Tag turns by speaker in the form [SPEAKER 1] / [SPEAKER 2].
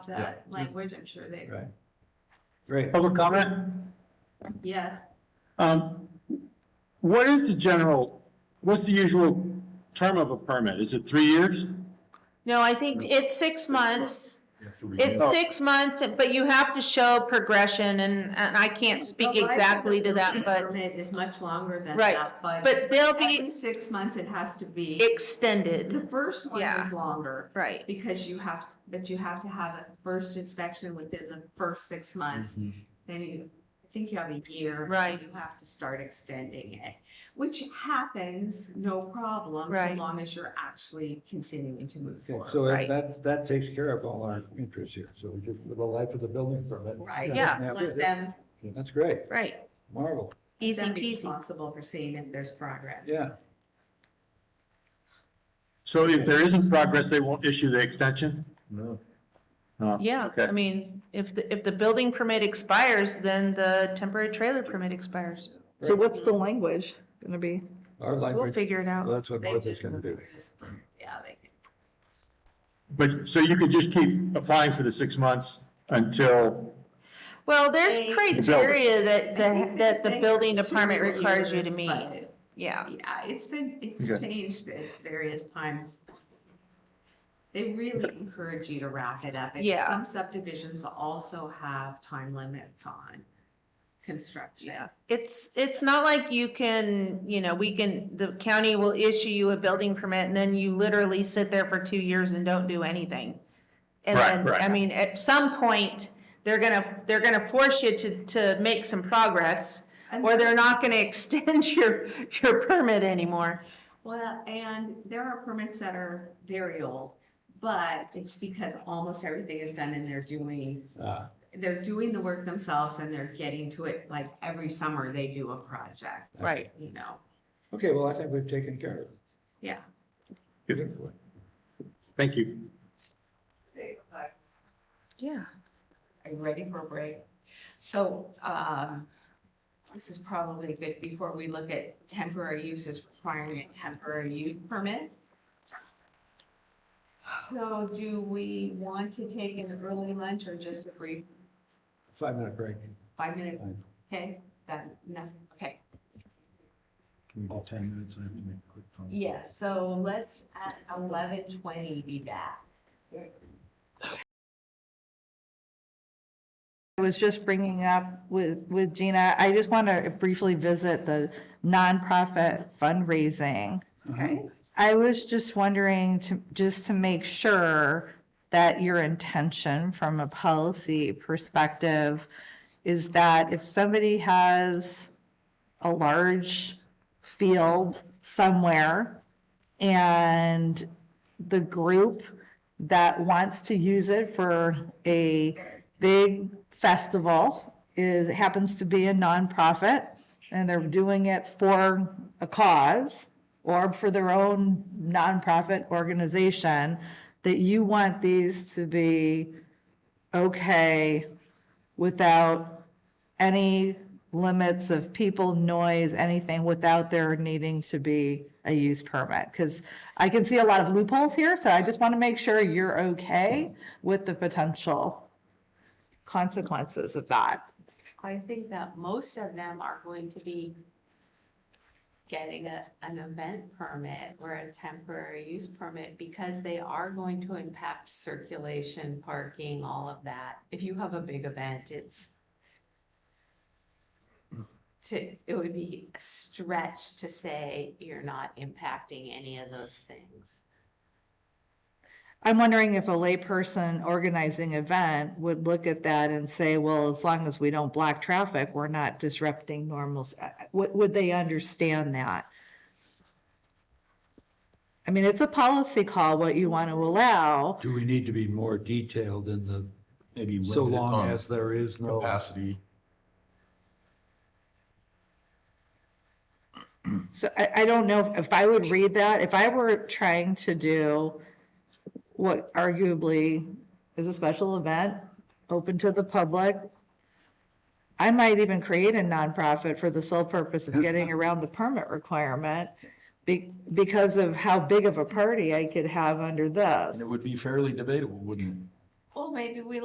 [SPEAKER 1] that language, I'm sure they,
[SPEAKER 2] Right. Great.
[SPEAKER 3] Public comment?
[SPEAKER 1] yes.
[SPEAKER 3] Um, what is the general, what's the usual term of a permit? Is it three years?
[SPEAKER 4] No, I think it's six months. It's
[SPEAKER 3] Oh.
[SPEAKER 4] six months, but you have to show progression and, and I can't speak
[SPEAKER 1] The life of
[SPEAKER 4] exactly to
[SPEAKER 1] the
[SPEAKER 4] that, but,
[SPEAKER 1] Permit is much longer than
[SPEAKER 4] Right,
[SPEAKER 1] that, but.
[SPEAKER 4] but they'll
[SPEAKER 1] Every
[SPEAKER 4] be
[SPEAKER 1] six months it has to be, the
[SPEAKER 4] extended,
[SPEAKER 1] first one
[SPEAKER 4] Yeah.
[SPEAKER 1] is longer,
[SPEAKER 4] right?
[SPEAKER 1] because you have, but you have to have a first inspection within the first six months.
[SPEAKER 2] Mm-hmm.
[SPEAKER 1] Then you, I think you have a year. and
[SPEAKER 4] Right.
[SPEAKER 1] You have to start extending it, which happens, no problem, so
[SPEAKER 4] Right.
[SPEAKER 1] long as you're actually continuing to move
[SPEAKER 2] Okay,
[SPEAKER 1] forward.
[SPEAKER 2] so
[SPEAKER 4] Right.
[SPEAKER 2] that, that takes care of all our interests here. So we just, with the life of the building permit.
[SPEAKER 1] Right,
[SPEAKER 4] Yeah.
[SPEAKER 2] now,
[SPEAKER 1] let them,
[SPEAKER 2] That's great.
[SPEAKER 4] Right,
[SPEAKER 2] Marvel.
[SPEAKER 1] let
[SPEAKER 4] easy
[SPEAKER 1] them be
[SPEAKER 4] peasy.
[SPEAKER 1] responsible for seeing if there's progress.
[SPEAKER 2] Yeah.
[SPEAKER 3] So if there isn't progress, they won't issue the extension?
[SPEAKER 2] No.
[SPEAKER 3] Oh,
[SPEAKER 4] Yeah,
[SPEAKER 3] okay.
[SPEAKER 4] I mean, if the, if the building permit expires, then the temporary trailer permit expires.
[SPEAKER 5] So what's the language gonna be?
[SPEAKER 2] Our
[SPEAKER 4] We'll
[SPEAKER 2] language,
[SPEAKER 4] figure it
[SPEAKER 2] well,
[SPEAKER 4] out.
[SPEAKER 2] that's what
[SPEAKER 1] They
[SPEAKER 2] Martha's
[SPEAKER 1] just-
[SPEAKER 2] gonna do.
[SPEAKER 1] Yeah, they can.
[SPEAKER 3] But, so you could just keep applying for the six months until,
[SPEAKER 4] Well, there's
[SPEAKER 1] They-
[SPEAKER 4] criteria that,
[SPEAKER 1] I think
[SPEAKER 4] that, that the
[SPEAKER 1] it's
[SPEAKER 4] building
[SPEAKER 1] been
[SPEAKER 4] department
[SPEAKER 1] two
[SPEAKER 4] requires you to
[SPEAKER 1] years,
[SPEAKER 4] meet.
[SPEAKER 1] but it-
[SPEAKER 4] Yeah,
[SPEAKER 1] Yeah, it's been, it's
[SPEAKER 3] Okay.
[SPEAKER 1] changed at various times. They really encourage you to wrap it up. and
[SPEAKER 4] Yeah.
[SPEAKER 1] Some subdivisions also have time limits on construction.
[SPEAKER 4] yeah. It's, it's not like you can, you know, we can, the county will issue you a building permit and then you literally sit there for two years and don't do anything. And
[SPEAKER 3] Right,
[SPEAKER 4] then,
[SPEAKER 3] right.
[SPEAKER 4] I mean, at some point, they're gonna, they're gonna force you to, to make some progress
[SPEAKER 1] And
[SPEAKER 4] or
[SPEAKER 1] there-
[SPEAKER 4] they're not gonna extend your, your permit anymore.
[SPEAKER 1] Well, and there are permits that are very old, but it's because almost everything is done and they're doing,
[SPEAKER 2] Ah,
[SPEAKER 1] they're doing the work themselves and they're getting to it, like every summer they do a project,
[SPEAKER 4] Right.
[SPEAKER 1] you know?
[SPEAKER 2] Okay, well, I think we've taken care
[SPEAKER 1] Yeah.
[SPEAKER 2] of it.
[SPEAKER 3] thank you.
[SPEAKER 1] Are
[SPEAKER 4] Yeah.
[SPEAKER 1] you ready for a break? So, um, this is probably good before we look at temporary uses requiring a temporary use permit. So do we want to take an early lunch or just a brief
[SPEAKER 2] Five minute break.
[SPEAKER 1] five minute?
[SPEAKER 2] Fine.
[SPEAKER 1] Okay, that, no, okay.
[SPEAKER 2] Can we do ten minutes? I have to make a quick phone.
[SPEAKER 1] Yeah, so let's at eleven twenty be back.
[SPEAKER 5] I was just bringing up with, with Gina, I just want to briefly visit the nonprofit fundraising.
[SPEAKER 1] Okay.
[SPEAKER 5] I was just wondering to, just to make sure that your intention from a policy perspective is that if somebody has a large field somewhere and the group that wants to use it for a big festival is, happens to be a nonprofit and they're doing it for a cause or for their own nonprofit organization, that you want these to be okay without any limits of people, noise, anything, without there needing to be a use permit. Because I can see a lot of loopholes here, so I just want to make sure you're okay with the potential consequences of that.
[SPEAKER 1] I think that most of them are going to be getting a, an event permit or a temporary use permit because they are going to impact circulation, parking, all of that. If you have a big event, it's to, it would be a stretch to say you're not impacting any of those things.
[SPEAKER 5] I'm wondering if a layperson organizing event would look at that and say, well, as long as we don't block traffic, we're not disrupting normals. Would, would they understand that? I mean, it's a policy call, what you want to allow.
[SPEAKER 2] Do we need to be more detailed in the,
[SPEAKER 6] maybe
[SPEAKER 2] so
[SPEAKER 6] limited
[SPEAKER 2] long
[SPEAKER 6] on
[SPEAKER 2] as there is no?
[SPEAKER 6] capacity.
[SPEAKER 5] So I, I don't know if- if I would read that, if I were trying to do what arguably is a special event, open to the public, I might even create a nonprofit for the sole purpose of getting around the permit requirement be, because of how big of a party I could have under this.
[SPEAKER 6] And it would be fairly debatable, wouldn't
[SPEAKER 1] well, maybe we